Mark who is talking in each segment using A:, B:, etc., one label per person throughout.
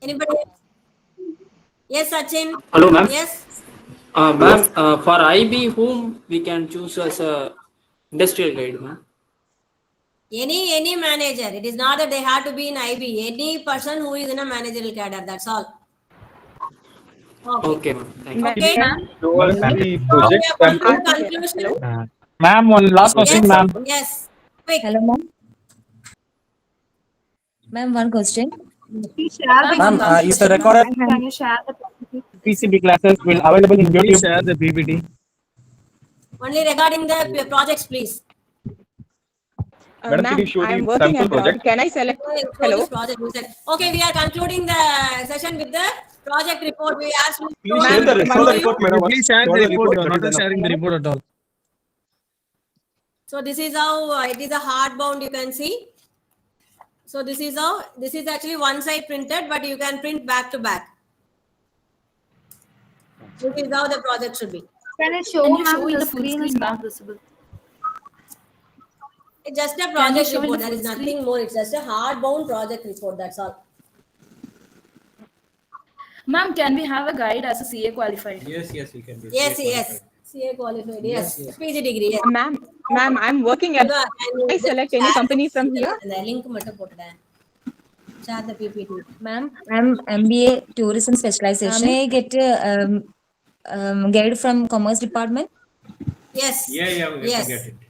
A: Anybody? else? Yes, Sachin?
B: Hello, ma'am.
A: Yes,
B: Uh, ma'am, uh, for IB, whom we can choose as a industrial guide, ma'am?
A: any, any manager. It is not that they have to be in IB. Any person who is in a managerial cadre, that's all. Okay.
B: Okay, ma'am. Thank you.
A: Okay.
C: towards the
A: So we
C: project
A: have come
C: control.
A: to conclusion.
C: Uh, Ma'am, one last question,
A: Yes,
C: ma'am.
A: Yes, quick.
D: Hello, ma'am. Ma'am, one question.
E: Ma'am, uh, is the recorded
F: Can you share the PPT?
C: PCB classes will available in YouTube. Share the PPT.
A: Only regarding the p- projects, please.
E: Uh,
C: Madam,
E: ma'am,
C: can you show
E: I am
C: the
E: working
C: sample
E: abroad.
C: project?
E: Can I select?
A: Go ahead, close
E: Hello.
A: this project, we said. Okay, we are concluding the session with the project report. We asked.
C: Please share the
E: Ma'am,
C: report, report, madam.
G: Please share
C: Show
G: the report, you are
C: madam.
G: not sharing the report at all.
A: So this is how uh, it is a hardbound, you can see. So this is how, this is actually one side printed, but you can print back to back. This is how the project should be.
F: Can I show ma'am the screen is not visible?
A: It's just a
F: Can you
A: project
F: show in
A: report,
F: the
A: there
F: full
A: is nothing more. It's just a hardbound project report, that's all.
H: Ma'am, can we have a guide as a CA qualified?
I: Yes, yes, we can do.
A: Yes, yes. CA qualified, yes. PG degree, yes.
E: Ma'am, ma'am, I'm working at.
A: Can
E: Um, I select any company from here?
A: The link மட்டும் போட்டுடேன். Share the PPT.
D: Ma'am, I'm MBA Tourism Specialization. May I get a um, um, guide from Commerce Department?
A: Yes.
I: Yeah, yeah, we
A: Yes.
I: can get it.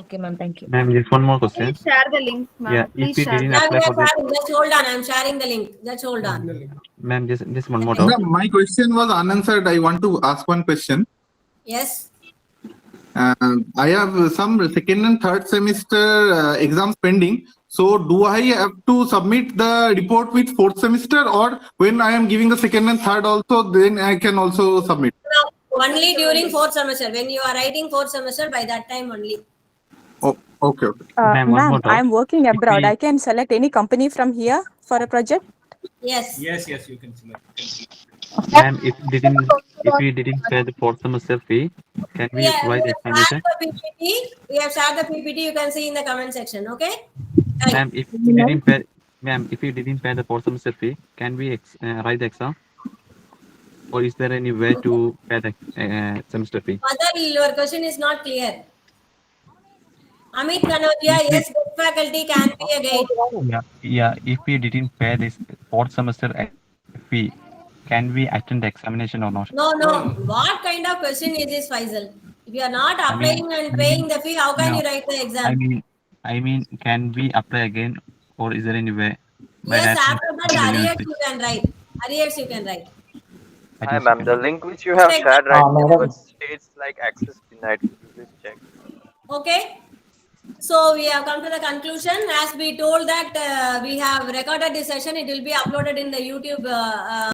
D: Okay, ma'am, thank you.
J: Ma'am, just one more
F: Can you
J: question.
F: share the link,
J: Yeah,
F: ma'am?
J: if
F: Please
J: we
F: share.
J: didn't-
A: Yeah, we are
J: apply for this.
A: sharing. Just hold on. I'm sharing the link. Just hold on.
J: Ma'am, just, just one more doubt.
K: Ma'am, my question was unanswered. I want to ask one question.
A: Yes.
K: Uh, I have some second and third semester uh, exams pending. So do I have to submit the report with fourth semester or when I am giving the second and third also, then I can also submit?
A: No, only during fourth semester. When you are writing fourth semester, by that time only.
K: Oh, okay, okay.
E: Uh,
J: Ma'am, one
E: ma'am,
J: more doubt.
E: I'm working
J: If
E: abroad.
J: we-
E: I can select any company from here for a project.
A: Yes.
I: Yes, yes, you can select.
J: Ma'am, if we didn't, if we didn't pay the fourth semester fee, can we
A: Yeah,
J: apply
A: we
J: the
A: have shared
J: explanation?
A: the PPT. We have shared the PPT. You can see in the comment section. Okay. Right.
J: Ma'am, if we didn't pay, ma'am, if we didn't pay the fourth semester fee, can we ex, uh, write the exam? Or is there any way to pay the, uh, semester fee?
A: Mother, your question is not clear. Amit Kanodia, yes, good faculty can be a guide.
J: Yeah, yeah, if we didn't pay this fourth semester e- fee, can we attend the examination or not?
A: No, no. What kind of question is this, Faisal? If you are not
J: mean-
A: applying and paying the fee, how can
J: No.
A: you write the
J: I
A: exam?
J: mean, I mean, can we apply again or is there any way? by
A: Yes,
J: that-
A: after that, arrears you can write. Arrears you can write.
J: I
L: Hi,
J: think
L: ma'am.
J: so.
L: The link which you have
A: Check.
L: shared right
C: Ah,
L: now
C: madam.
L: it states like access denied. Please check.
A: Okay. So we have come to the conclusion. As we told that uh, we have recorded this session, it will be uploaded in the YouTube. Uh, uh,